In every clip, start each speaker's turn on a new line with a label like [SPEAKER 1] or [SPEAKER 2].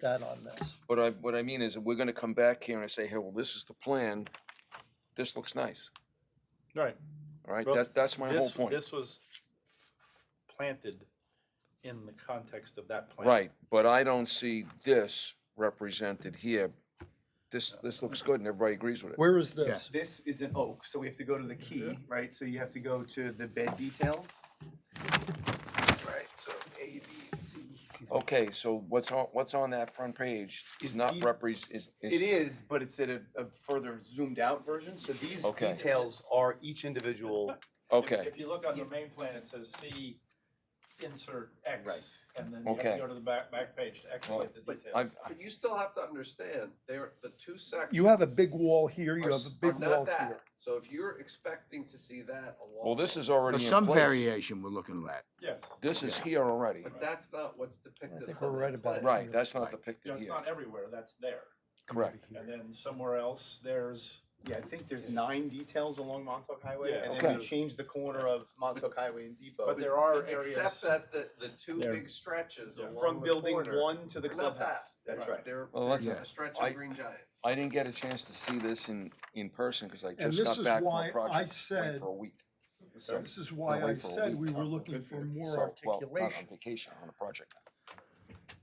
[SPEAKER 1] that on this.
[SPEAKER 2] But I, what I mean is, that we're gonna come back here and say, hey, well, this is the plan, this looks nice,
[SPEAKER 3] Right.
[SPEAKER 2] all right?
[SPEAKER 3] Well,
[SPEAKER 2] That, that's my whole
[SPEAKER 3] This,
[SPEAKER 2] point.
[SPEAKER 3] this was planted in the context of that plan.
[SPEAKER 2] Right, but I don't see this represented here. This, this looks good and everybody agrees with it.
[SPEAKER 1] Where is this?
[SPEAKER 4] This is an oak, so we have to go to the key, right? So you have to go to the bed details. Right, so A, B, and C. excuse me.
[SPEAKER 2] Okay, so what's on, what's on that front page is
[SPEAKER 4] Is
[SPEAKER 2] not
[SPEAKER 4] the-
[SPEAKER 2] repres, is,
[SPEAKER 4] It
[SPEAKER 2] is,
[SPEAKER 4] is, but it's in a, a further zoomed out version, so these
[SPEAKER 2] Okay.
[SPEAKER 4] details are each individual.
[SPEAKER 3] If-
[SPEAKER 2] okay,
[SPEAKER 3] If you look on the main plan, it says C insert X.
[SPEAKER 4] Right.
[SPEAKER 3] And then you have to
[SPEAKER 2] Okay.
[SPEAKER 3] go to the back, back page to
[SPEAKER 2] Well,
[SPEAKER 3] activate the
[SPEAKER 5] but
[SPEAKER 3] details.
[SPEAKER 2] I've,
[SPEAKER 5] But you still have to understand, there, the two sections.
[SPEAKER 1] You have a big wall here, you
[SPEAKER 5] are
[SPEAKER 1] have
[SPEAKER 5] s-
[SPEAKER 1] a
[SPEAKER 5] are
[SPEAKER 1] big
[SPEAKER 5] not
[SPEAKER 1] wall
[SPEAKER 5] that.
[SPEAKER 1] here.
[SPEAKER 5] So if you're expecting to see that along.
[SPEAKER 2] well, this
[SPEAKER 5] with-
[SPEAKER 2] is already
[SPEAKER 6] There's
[SPEAKER 2] in
[SPEAKER 6] some
[SPEAKER 2] place.
[SPEAKER 6] variation we're looking at.
[SPEAKER 3] Yes.
[SPEAKER 2] This is here already.
[SPEAKER 5] But that's not what's depicted.
[SPEAKER 1] think
[SPEAKER 5] on
[SPEAKER 1] we're
[SPEAKER 5] that
[SPEAKER 1] right about
[SPEAKER 5] plan.
[SPEAKER 1] it.
[SPEAKER 2] Right, that's not
[SPEAKER 1] Right.
[SPEAKER 3] You know,
[SPEAKER 2] depicted
[SPEAKER 3] it's
[SPEAKER 2] here.
[SPEAKER 3] not everywhere, that's there.
[SPEAKER 2] Correct.
[SPEAKER 3] And then somewhere else, there's,
[SPEAKER 4] Yeah, I think there's nine details along Montauk Highway,
[SPEAKER 3] Yeah.
[SPEAKER 4] and then we
[SPEAKER 2] Okay.
[SPEAKER 4] change the corner of Montauk Highway and Depot.
[SPEAKER 3] but there are areas.
[SPEAKER 5] Except that the, the two
[SPEAKER 3] There.
[SPEAKER 5] big stretches
[SPEAKER 3] Yeah.
[SPEAKER 5] along the corner.
[SPEAKER 4] From building one to the
[SPEAKER 5] are not that.
[SPEAKER 4] clubhouse, that's
[SPEAKER 3] Right.
[SPEAKER 4] right.
[SPEAKER 5] They're,
[SPEAKER 2] Well,
[SPEAKER 5] there's
[SPEAKER 2] listen,
[SPEAKER 5] a stretch
[SPEAKER 2] I-
[SPEAKER 5] of green giants.
[SPEAKER 2] I didn't get a chance to see this in, in person because I
[SPEAKER 1] this
[SPEAKER 2] just got
[SPEAKER 1] is
[SPEAKER 2] back from
[SPEAKER 1] why
[SPEAKER 2] a
[SPEAKER 1] I
[SPEAKER 2] project away
[SPEAKER 1] said-
[SPEAKER 2] for a week. So,
[SPEAKER 1] This is why
[SPEAKER 2] away
[SPEAKER 1] I
[SPEAKER 2] for a
[SPEAKER 1] said
[SPEAKER 2] week.
[SPEAKER 1] we were looking
[SPEAKER 4] Good
[SPEAKER 1] for
[SPEAKER 4] for you.
[SPEAKER 1] more
[SPEAKER 2] So, well, not on
[SPEAKER 1] articulation.
[SPEAKER 2] vacation, on a project.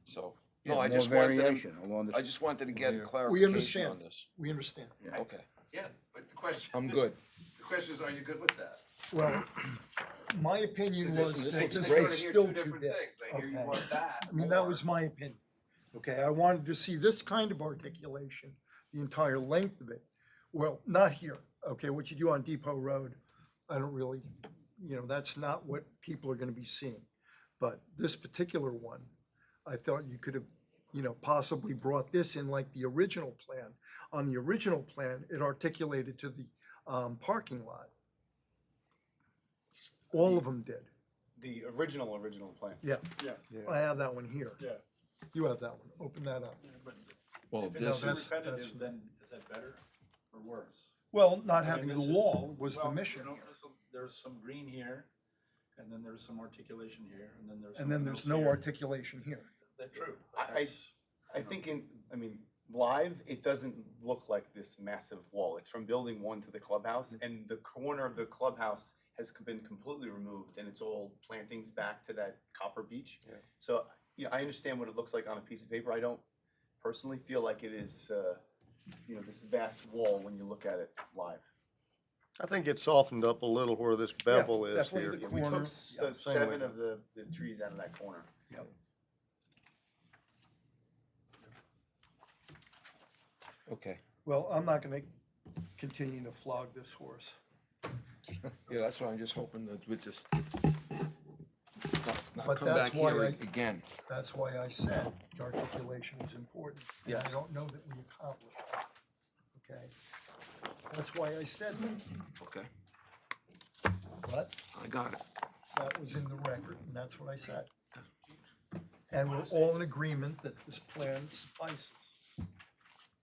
[SPEAKER 2] So,
[SPEAKER 6] Yeah,
[SPEAKER 2] no, I
[SPEAKER 6] more
[SPEAKER 2] just wanted, them-
[SPEAKER 6] Variation along
[SPEAKER 2] I
[SPEAKER 6] the,
[SPEAKER 2] just wanted to get
[SPEAKER 1] We
[SPEAKER 2] clarification
[SPEAKER 1] understand.
[SPEAKER 2] on this.
[SPEAKER 1] We understand.
[SPEAKER 6] Yeah.
[SPEAKER 2] Okay,
[SPEAKER 5] Yeah, but the question.
[SPEAKER 2] I'm good.
[SPEAKER 5] The question is, are you good with that?
[SPEAKER 1] Well, my opinion
[SPEAKER 5] 'Cause
[SPEAKER 1] was
[SPEAKER 2] this
[SPEAKER 1] that
[SPEAKER 2] looks
[SPEAKER 1] this
[SPEAKER 2] great.
[SPEAKER 5] sort of
[SPEAKER 1] was
[SPEAKER 5] hear
[SPEAKER 1] still
[SPEAKER 5] two
[SPEAKER 1] too
[SPEAKER 5] different
[SPEAKER 1] big.
[SPEAKER 5] things. I hear you
[SPEAKER 1] Okay.
[SPEAKER 5] want that.
[SPEAKER 1] I mean, that
[SPEAKER 5] or-
[SPEAKER 1] was my opinion. Okay, I wanted to see this kind of articulation, the entire length of it. Well, not here. Okay, what you do on Depot Road, I don't really, you know, that's not what people are gonna be seeing. But this particular one, I thought you could have, you know, possibly brought this in like the original plan. On the original plan, it articulated to the, um, parking lot. All of them did.
[SPEAKER 4] The original, original plan.
[SPEAKER 1] Yeah,
[SPEAKER 3] Yes,
[SPEAKER 1] I have that one here.
[SPEAKER 3] yeah.
[SPEAKER 1] You have that one. Open that up.
[SPEAKER 3] But
[SPEAKER 6] well,
[SPEAKER 3] If
[SPEAKER 1] this
[SPEAKER 3] it's
[SPEAKER 6] this,
[SPEAKER 1] is- that's-
[SPEAKER 3] repetitive, then is that better or worse?
[SPEAKER 1] Well, not
[SPEAKER 3] I mean,
[SPEAKER 1] having the
[SPEAKER 3] this is-
[SPEAKER 1] wall was the
[SPEAKER 3] well, you
[SPEAKER 1] mission
[SPEAKER 3] know,
[SPEAKER 1] here.
[SPEAKER 3] there's some- There's some green here, and then there's some articulation here, and then there's.
[SPEAKER 1] And then
[SPEAKER 3] something
[SPEAKER 1] there's
[SPEAKER 3] else
[SPEAKER 1] no
[SPEAKER 3] here.
[SPEAKER 1] articulation here.
[SPEAKER 3] That's true.
[SPEAKER 4] I- I-
[SPEAKER 3] That's-
[SPEAKER 4] I think in, I mean, live, it doesn't look like this massive wall. It's from building one to the clubhouse, and the corner of the clubhouse has c- been completely removed, and it's all plantings back to that copper beach.
[SPEAKER 2] Yeah.
[SPEAKER 4] So, you know, I understand what it looks like on a piece of paper. I don't personally feel like it is, uh, you know, this vast wall when you look at it live.
[SPEAKER 7] I think it's softened up a little where this
[SPEAKER 1] Yeah,
[SPEAKER 7] bevel is
[SPEAKER 1] definitely
[SPEAKER 7] here.
[SPEAKER 1] the
[SPEAKER 4] We
[SPEAKER 1] corner,
[SPEAKER 4] took s- uh,
[SPEAKER 7] same way
[SPEAKER 4] seven
[SPEAKER 7] to-
[SPEAKER 4] of the, the trees out of that corner.
[SPEAKER 2] Okay,
[SPEAKER 1] Well, I'm not gonna continue to flog this horse.
[SPEAKER 2] yeah, that's why I'm just hoping that we just not- not
[SPEAKER 1] But
[SPEAKER 2] come
[SPEAKER 1] that's
[SPEAKER 2] back
[SPEAKER 1] why
[SPEAKER 2] here
[SPEAKER 1] I-
[SPEAKER 2] again.
[SPEAKER 1] That's why I said the articulation was important. and I
[SPEAKER 2] Yes.
[SPEAKER 1] don't know that we accomplished that. Okay? That's why I said that,
[SPEAKER 2] Okay,
[SPEAKER 1] but
[SPEAKER 2] I got it.
[SPEAKER 1] that was in the record, and that's what I said. And we're all in agreement that this plan suffices.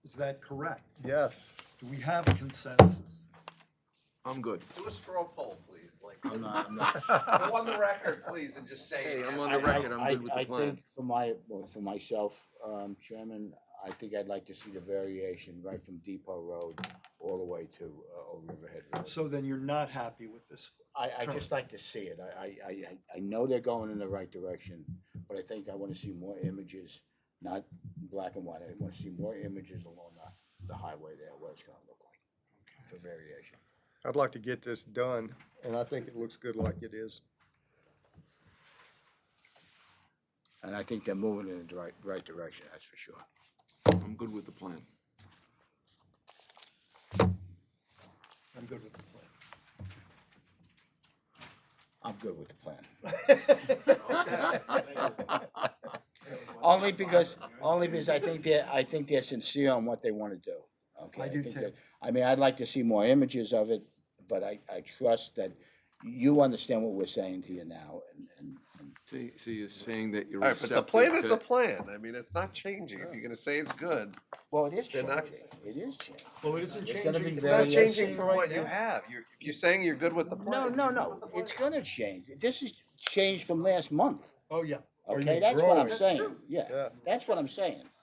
[SPEAKER 1] Is that correct?
[SPEAKER 7] Yes,
[SPEAKER 1] Do we have consensus?
[SPEAKER 2] I'm good.
[SPEAKER 5] Do a straw poll, please, like. I'm not, I'm not. Go on the record, please, and just say.
[SPEAKER 2] Hey, I'm
[SPEAKER 5] yes,
[SPEAKER 2] on the
[SPEAKER 5] I-
[SPEAKER 2] record. I'm good with the
[SPEAKER 8] I
[SPEAKER 2] plan.
[SPEAKER 8] think For my, well, for myself, um, Chairman, I think I'd like to see the variation right from Depot Road all the way to, uh, Old Riverhead Road.
[SPEAKER 1] So then you're not happy with this
[SPEAKER 8] I, I just like to see it. I, I, I, I- I know they're going in the right direction, but I think I wanna see more images, not black and white. I wanna see more images along the, the highway there, what it's gonna look like for variation.
[SPEAKER 7] I'd like to get this done, and I think it looks good like it is.
[SPEAKER 8] And I think they're moving in the right, right direction, that's for sure.
[SPEAKER 2] I'm good with the plan.
[SPEAKER 1] I'm good with the plan.
[SPEAKER 8] I'm good with the plan.
[SPEAKER 3] I-
[SPEAKER 8] Only because, only because I think they're, I think they're sincere on what they want to do. Okay,
[SPEAKER 1] I do
[SPEAKER 8] think
[SPEAKER 1] too.
[SPEAKER 8] that- I mean, I'd like to see more images of it, but I, I trust that you understand what we're saying to you now and, and, and
[SPEAKER 2] See, see, you're saying that you're
[SPEAKER 5] All right, but the plan is the
[SPEAKER 2] receptive to-
[SPEAKER 5] plan. I mean, it's not changing. If you're gonna say it's good,
[SPEAKER 8] well, it is
[SPEAKER 5] They're
[SPEAKER 8] changing,
[SPEAKER 5] not-
[SPEAKER 8] it is changing.
[SPEAKER 1] Well, it isn't
[SPEAKER 8] It's gonna
[SPEAKER 1] changing.
[SPEAKER 8] be
[SPEAKER 5] it's not
[SPEAKER 8] Various-
[SPEAKER 5] changing from what you have. You're, if you're saying you're good with the
[SPEAKER 8] No,
[SPEAKER 5] plan.
[SPEAKER 8] no, no, it's gonna change. This is changed from last month.
[SPEAKER 1] Oh, yeah.
[SPEAKER 8] Okay, that's what I'm
[SPEAKER 7] growing.
[SPEAKER 8] saying. Yeah,
[SPEAKER 7] Yeah.
[SPEAKER 8] that's what I'm saying.